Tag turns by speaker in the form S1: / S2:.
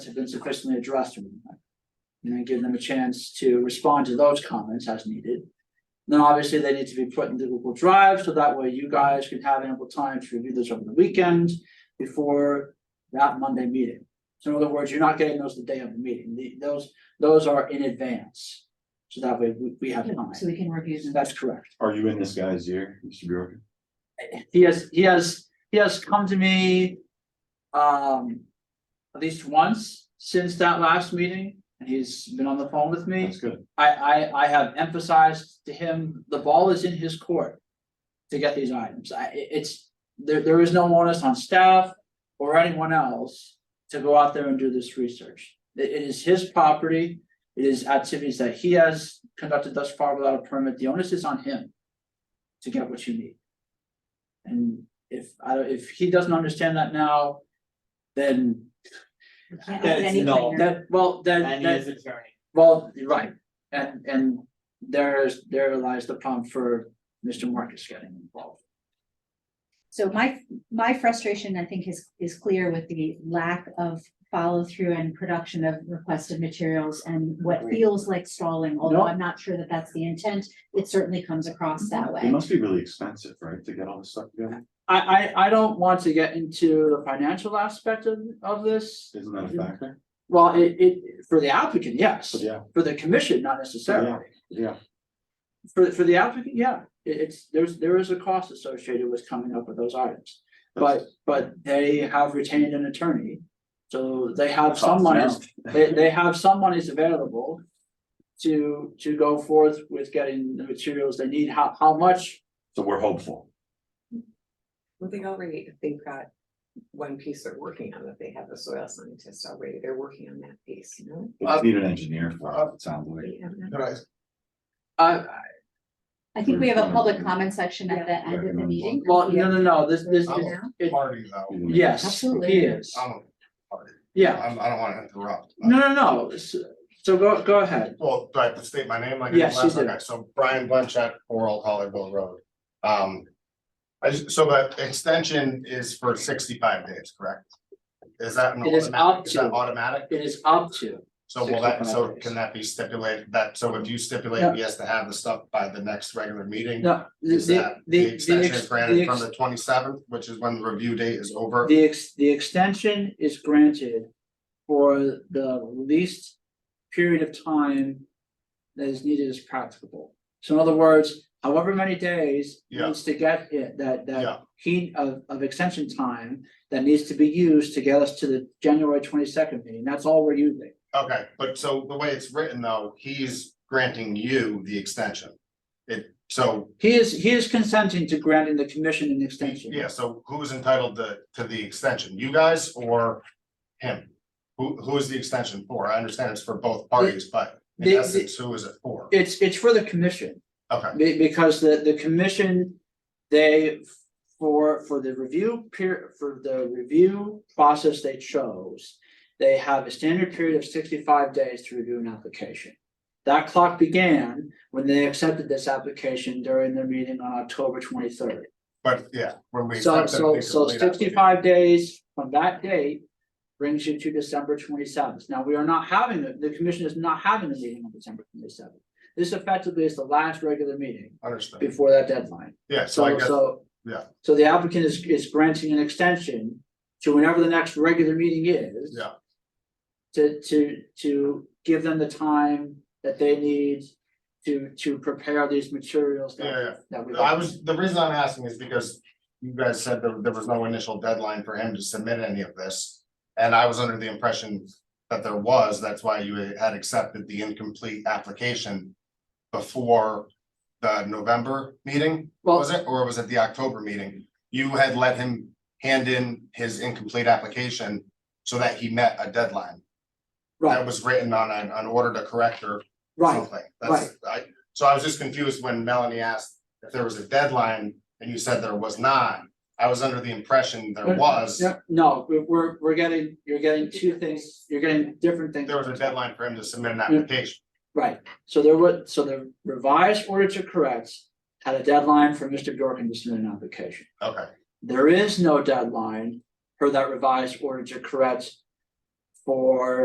S1: have been sufficiently addressed. or not. And then give them a chance to respond to those comments as needed. Then obviously they need to be put into Google Drive, so that way you guys can have ample time to review those over the weekend before that Monday meeting. So in other words, you're not getting those the day of the meeting. The- those, those are in advance. So that way we, we have time.
S2: Um, So we can review them.
S1: That's correct.
S3: Are you in this guy's ear, Mr. Bjork?
S1: he has, he has, he has come to me. Um, at least once since that last meeting, and he's been on the phone with me.
S3: That's good.
S1: I, I, I have emphasized to him, the ball is in his court. To get these items, I, it- it's, there, there is no onus on staff or anyone else to go out there and do this research. It- it is his property, it is activities that he has conducted thus far without a permit, the onus is on him. To get what you need. And if, I, don't- if he doesn't understand that now, then
S2: We can't
S1: That's-
S2: ask any
S4: no,
S2: planner.
S1: that, well, then,
S4: And
S1: that-
S4: his attorney.
S1: well, you're right, and and there's, there lies the problem for Mr. Marcus getting involved.
S2: So my, my frustration, I think, is, is clear with the lack of follow-through and production of requested materials and what
S4: Agreed.
S2: feels like stalling, although
S1: No.
S2: I'm not sure that that's the intent. It certainly comes across that
S3: It
S1: Mm-hmm.
S2: way.
S3: must be really expensive, right, to get all this stuff together?
S1: I I I don't want to get into the financial aspect of of this,
S3: Isn't that a factor?
S1: well, it it, for the applicant, yes,
S3: But yeah,
S1: for the commission, not necessarily.
S3: yeah,
S1: For for the applicant, yeah, It- it's, there's, there is a cost associated with coming up with those items, but but they have retained an attorney. So they have some money. They they have some monies available. To to go forth with getting the materials they need, how how much,
S3: So we're hopeful.
S5: Well, they already, if they've got one piece they're working on, that they have the soil scientist already, they're working on that piece, you know?
S3: We just need an engineer for it, it sounds like.
S5: They have that.
S6: Right,
S1: uh,
S2: I think we have a public
S3: Mm.
S2: comment section at the end of the
S3: Recommend
S2: meeting.
S1: Mm-hmm. well, no, no, no, this this
S6: I'm
S1: is,
S6: a
S1: it,
S6: party though.
S1: yes,
S2: Absolutely.
S1: he is,
S6: I'm a party.
S1: yeah,
S6: I'm- I don't wanna interrupt.
S1: no, no, no, S- so go go ahead.
S6: Well, do I have to state my name like I
S1: Yes,
S6: did
S1: you
S6: last?
S1: do.
S6: Okay, so Brian Blanchett, four Old Hollyville Road. Um, I just, so the extension is for sixty-five days, correct? Is that an
S1: It is up
S6: automatic, is that
S1: to.
S6: automatic?
S1: It is up to,
S6: So will that,
S1: 65
S6: so
S1: days.
S6: can that be stipulated, that, so if you
S1: Yeah.
S6: stipulate he has to have the stuff by the next regular meeting?
S1: no, the
S6: Is that,
S1: the
S6: the
S1: the the
S6: extension
S1: ex-
S6: is
S1: the
S6: granted from
S1: ex-
S6: the twenty-seventh, which is when the review date is over?
S1: the ex- the extension is granted. For the least period of time that is needed as practicable. So in other words, however many days
S6: Yeah.
S1: needs to get it, that that
S6: Yeah.
S1: heat of of extension time. That needs to be used to get us to the January twenty second meeting, that's all we're using.
S6: Okay, but so the way it's written though, he's granting you the extension. It, so,
S1: He is, he is consenting to granting the commission an extension.
S6: yeah, so who's entitled to, to the extension? You guys or him? Who, who is the extension for? I understand it's for both parties, but in
S1: They-
S6: essence, who is it for?
S1: It's it's for the commission.
S6: Okay,
S1: Be- because the, the commission, they, for, for the review period, for the review process they chose. They have a standard period of sixty-five days to review an application. That clock began when they accepted this application during their meeting on October twenty-third.
S6: but yeah, when we.
S1: So,
S6: accepted,
S1: so,
S6: we
S1: so
S6: completed it.
S1: sixty-five days from that date brings you to December twenty-seventh. Now, we are not having, the, the commission is not having a meeting on December twenty-seventh. This effectively is the last regular meeting
S6: Understood.
S1: before that deadline.
S6: Yeah, so I
S1: So,
S6: guess,
S1: so.
S6: yeah.
S1: So the applicant is, is granting an extension to whenever the next regular meeting is.
S6: Yeah.
S1: To, to, to give them the time that they need to, to prepare these materials
S6: Yeah, yeah.
S1: that, that we.
S6: I was, the reason I'm asking is because you guys said there, there was no initial deadline for him to submit any of this. And I was under the impression that there was, that's why you had accepted the incomplete application before the November meeting, was
S1: Well,
S6: it, or was it the October meeting? You had let him hand in his incomplete application so that he met a deadline. That
S1: right,
S6: was written on an, an order to correct or
S1: right,
S6: something. That's, I, so I was just confused when Melanie asked if there was a deadline and you said there was not. I was under the impression there was,
S1: Yeah, no, we're- we're, we're getting, you're getting two things, you're getting different things.
S6: there was a deadline for him to submit an application.
S1: Right, so there was, so the revised order to correct had a deadline for Mr. Dorkin to submit an application.
S6: Okay,
S1: There is no deadline for that revised order to correct for